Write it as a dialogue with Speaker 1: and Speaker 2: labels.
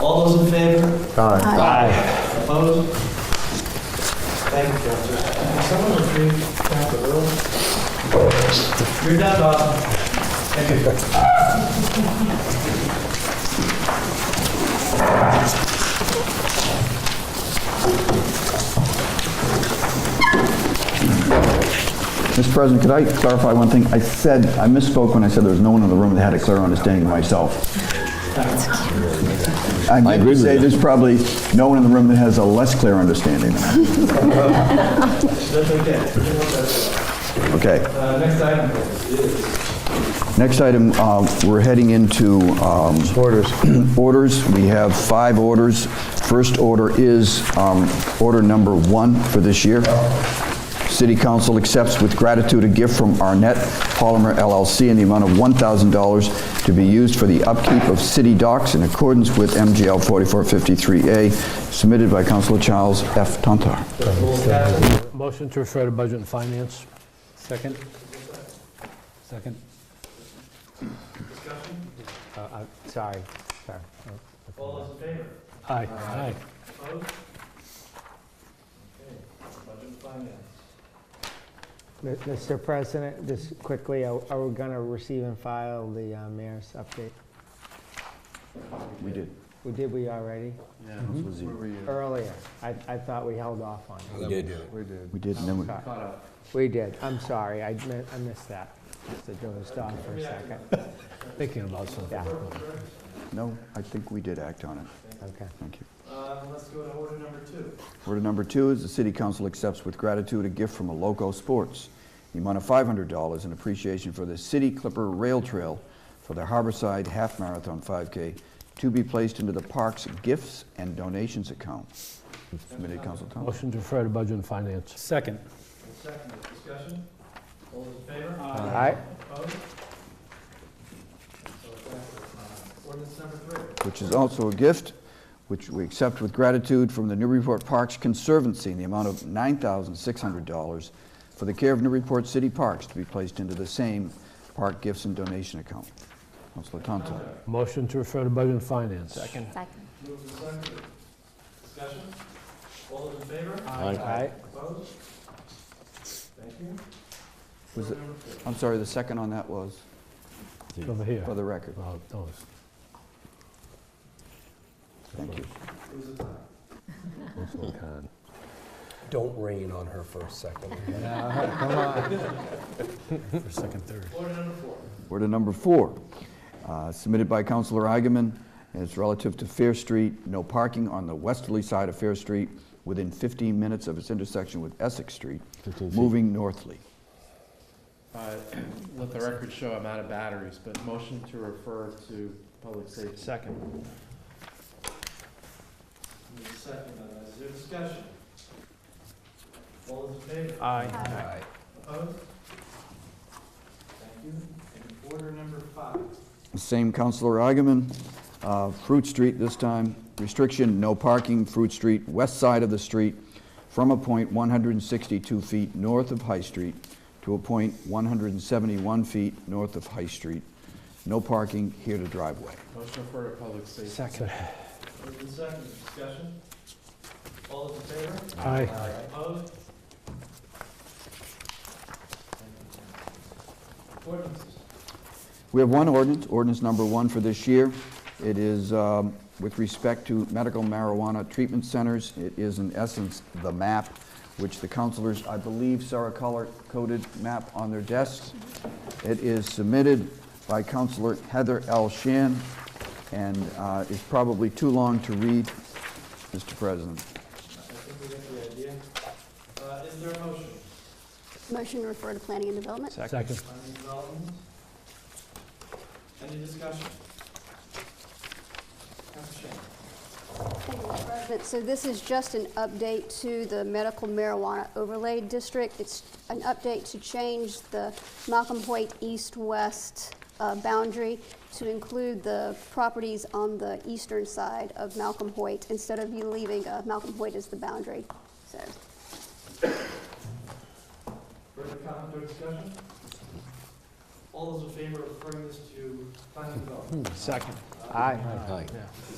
Speaker 1: All those in favor?
Speaker 2: Aye.
Speaker 1: Aye. Opposed? Thank you, Counselor.
Speaker 3: Can someone retrieve Captain Earl?
Speaker 1: You're done, Bob. Thank you.
Speaker 4: Mr. President, could I clarify one thing? I said, I misspoke when I said there was no one in the room that had a clear understanding of myself. I meant
Speaker 2: agree
Speaker 4: to
Speaker 2: with
Speaker 4: say
Speaker 2: you.
Speaker 4: there's probably no one in the room that has a less clear understanding. than
Speaker 1: That's okay.
Speaker 4: I. Okay.
Speaker 1: Uh, Next item.
Speaker 4: Next item, um, we're heading into... Orders. Orders. We have five orders. First order is um, order number one for this year. City Council accepts with gratitude a gift from Arnett Polymer LLC in the amount of $1,000 to be used for the upkeep of city docks in accordance with MGL 4453A, submitted by Councilor Charles F. Tantar.
Speaker 5: Motion to refer to Budget and Finance.
Speaker 6: Second? Second? Uh, uh, Sorry, sorry.
Speaker 1: All those in favor?
Speaker 5: Aye. Aye.
Speaker 1: Opposed? Okay. Budget and Finance.
Speaker 6: Mi- Mr. President, just quickly, are are we going to receive and file the uh, mayor's update?
Speaker 4: We did.
Speaker 6: We Did we already? Mm-hmm. Earlier. I I thought we held off on it.
Speaker 2: We did.
Speaker 4: We did, and then we...
Speaker 6: We did. I'm sorry. I mi- I missed that. Just to dozed off for a second.
Speaker 5: Thinking about something.
Speaker 6: Yeah,
Speaker 4: No, I think we did act on it.
Speaker 6: okay.
Speaker 4: Thank you.
Speaker 1: Uh, Let's go to order number two.
Speaker 4: Order number two is the city council accepts with gratitude a gift from Aloco Sports, the amount of $500 in appreciation for the City Clipper Rail Trail for the Harborside Half Marathon 5K to be placed into the park's gifts and donations account. Submitted, Council Thompson.
Speaker 5: Motion to refer to Budget and Finance.
Speaker 6: Second.
Speaker 1: And Second, discussion. All those in favor?
Speaker 6: All right.
Speaker 1: Opposed? So passes. Ordinance number three.
Speaker 4: Which is also a gift, which we accept with gratitude from the Newburyport Parks Conservancy in the amount of $9,600 for the care of Newburyport City Parks to be placed into the same park gifts and donation account. Councilor Tonto.
Speaker 5: Motion to refer to Budget and Finance. Second.
Speaker 2: Second.
Speaker 1: Moved and seconded. Discussion. All those in favor?
Speaker 6: All right.
Speaker 1: Opposed? Thank you.
Speaker 4: Was
Speaker 1: Order
Speaker 4: it-
Speaker 1: number four.
Speaker 4: I'm sorry, the second on that was,
Speaker 5: Over here.
Speaker 4: for the record.
Speaker 5: Oh, no,
Speaker 4: Thank you.
Speaker 1: It was a tie.
Speaker 5: it's- it's okay.
Speaker 3: Don't rain on her for a second.
Speaker 5: For second, third.
Speaker 1: Order number four.
Speaker 4: Order number four, uh, submitted by Councilor Eigenman, and it's relative to Fair Street, no parking on the westerly side of Fair Street within 15 minutes of its intersection with Essex Street,
Speaker 2: 15 feet.
Speaker 4: moving northly.
Speaker 7: Uh, Let the record show I'm out of batteries, but motion to refer to public safety. Second.
Speaker 1: Moved and seconded. uh, Is there discussion? All those in favor?
Speaker 7: Aye.
Speaker 1: Opposed? Thank you. And order number five.
Speaker 4: Same Counselor Eigenman, uh, Fruit Street this time, restriction, no parking, Fruit Street, west side of the street, from a point 162 feet north of High Street to a point 171 feet north of High Street. No parking here to driveway.
Speaker 7: Motion to refer to public safety.
Speaker 5: Second.
Speaker 1: Moved and seconded. Discussion. All those in favor?
Speaker 5: Aye.
Speaker 1: Opposed? Ordinances.
Speaker 4: We have one ordinance, ordinance number one for this year. It is um, with respect to medical marijuana treatment centers. It is in essence the map, which the counselors, I believe, saw a color-coded map on their desks. It is submitted by Counselor Heather L. Shan, and uh, is probably too long to read, Mr. President.
Speaker 1: I think we get the idea. Uh, Is there a motion?
Speaker 2: Motion to refer to planning and development?
Speaker 5: Second.
Speaker 1: Planning development? Any discussion? Council Shan.
Speaker 2: Thank you, Mr. President. So this is just an update to the medical marijuana overlay district. It's an update to change the Malcolm Hoyt east-west uh, boundary to include the properties on the eastern side of Malcolm Hoyt instead of you leaving uh, Malcolm Hoyt as the boundary. So
Speaker 1: Further comment or discussion? All those in favor of referring this to planning development?
Speaker 7: Second.
Speaker 6: Hmm. Aye.
Speaker 5: Aye.